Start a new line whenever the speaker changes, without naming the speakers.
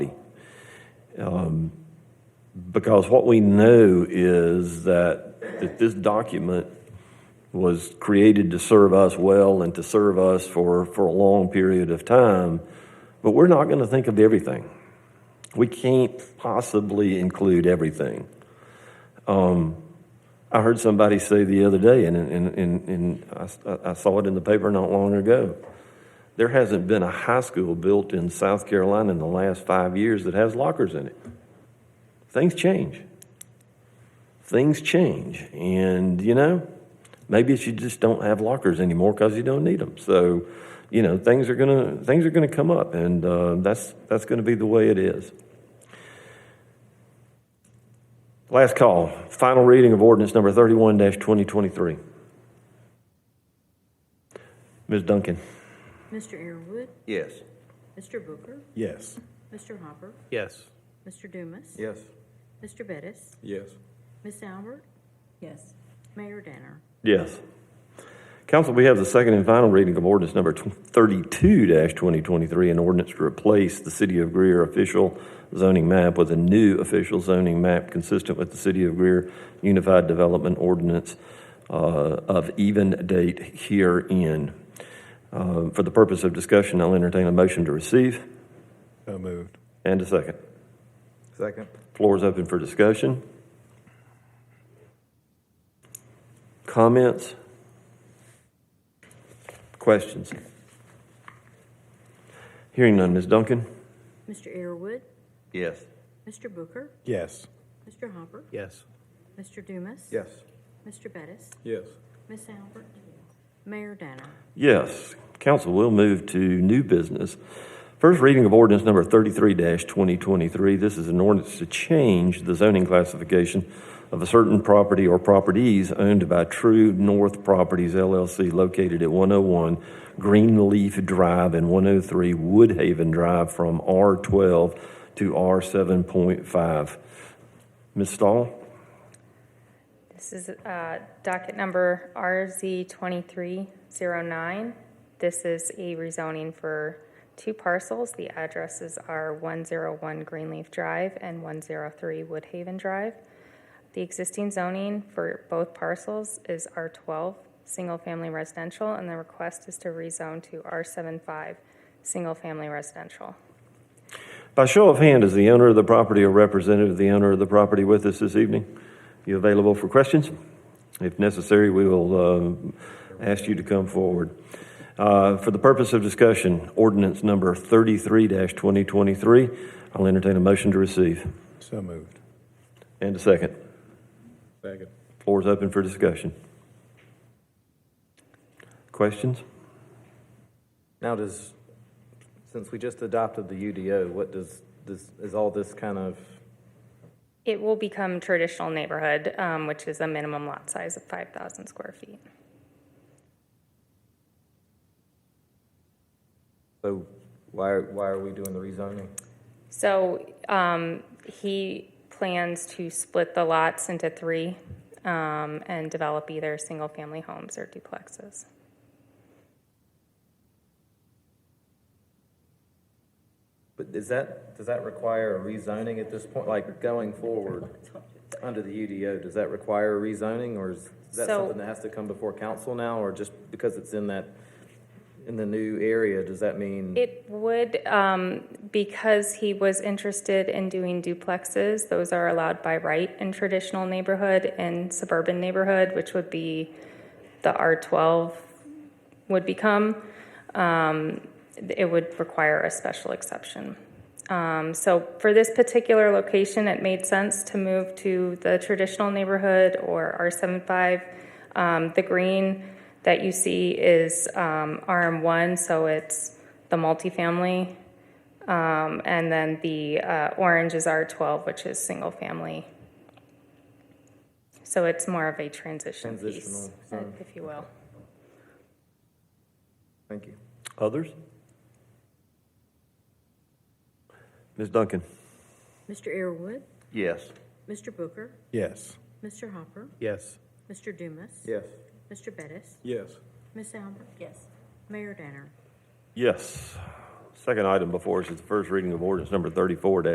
Um, Because what we know is that, that this document was created to serve us well and to serve us for, for a long period of time, but we're not going to think of everything. We can't possibly include everything. Um, I heard somebody say the other day, and, and, and, and I, I saw it in the paper not long ago. There hasn't been a high school built in South Carolina in the last five years that has lockers in it. Things change. Things change. And, you know, maybe it's you just don't have lockers anymore because you don't need them. So, you know, things are going to things are going to come up, and uh, that's, that's going to be the way it is. Last call, final reading of ordinance number thirty-one twenty twenty-three. Ms. Duncan?
Mr. Earwood,
Yes.
Mr. Booker,
Yes.
Mr. Hopper,
Yes.
Mr. Dumas,
Yes.
Mr. Bettis,
Yes.
Miss Albert,
Yes.
Mayor Danner.
Yes. Council, we have the second and final reading of ordinance number thirty-two twenty twenty-three, an ordinance to replace the City of Greer official zoning map with a new official zoning map consistent with the City of Greer Unified Development Ordinance uh, of even date herein. Uh, For the purpose of discussion, I'll entertain a motion to receive
So moved.
and a second.
Second.
Floor is open for discussion. Comments? Questions? Hearing none, Ms. Duncan?
Mr. Earwood,
Yes.
Mr. Booker,
Yes.
Mr. Hopper,
Yes.
Mr. Dumas.
Yes.
Mr. Bettis,
Yes.
Miss Albert, Mayor Danner.
Yes. Council will move to new business. First reading of ordinance number thirty-three twenty twenty-three. This is an ordinance to change the zoning classification of a certain property or properties owned by True North Properties LLC located at one oh one Greenleaf Drive and one oh three Woodhaven Drive from R twelve to R seven point five. Ms. Stahl?
This is uh, docket number RZ2309. This is a rezoning for two parcels. The addresses are 101 Greenleaf Drive and 103 Woodhaven Drive. The existing zoning for both parcels is R12, single-family residential, and the request is to rezone to R75, single-family residential.
By show of hand, is the owner of the property or representative of the owner of the property with us this evening? You available for questions? If necessary, we will uh, ask you to come forward. Uh, For the purpose of discussion, ordinance number 33-2023, I'll entertain a motion to receive.
So moved.
And a second.
Second.
Floor is open for discussion. Questions?
Now, does, since we just adopted the UDO, what does, does, is all this kind of,
It will become traditional neighborhood, um, which is a minimum lot size of 5,000 square feet.
so why, why are we doing the rezoning?
So um, he plans to split the lots into three um, and develop either single-family homes or duplexes.
But is that, does that require a rezoning at this point, like going forward under the UDO, does that require a rezoning? Or is that
So-
something that has to come before council now, or just because it's in that, in the new area, does that mean?
It would, um, because he was interested in doing duplexes, those are allowed by right in traditional neighborhood and suburban neighborhood, which would be the R12 would become. Um, it would require a special exception. Um, so for this particular location, it made sense to move to the traditional neighborhood or R75. Um, the green that you see is um, RM1, so it's the multifamily. Um, and then the uh, orange is R12, which is single family. So it's more of a transition piece,
Transitional
uh,
zone.
if you will.
Thank you.
Others? Ms. Duncan?
Mr. Earwood,
Yes.
Mr. Booker,
Yes.
Mr. Hopper,
Yes.
Mr. Dumas.
Yes.
Mr. Bettis,
Yes.
Miss Albert,
Yes.
Mayor Danner.
Yes. Second item before us is the first reading of ordinance number thirty-four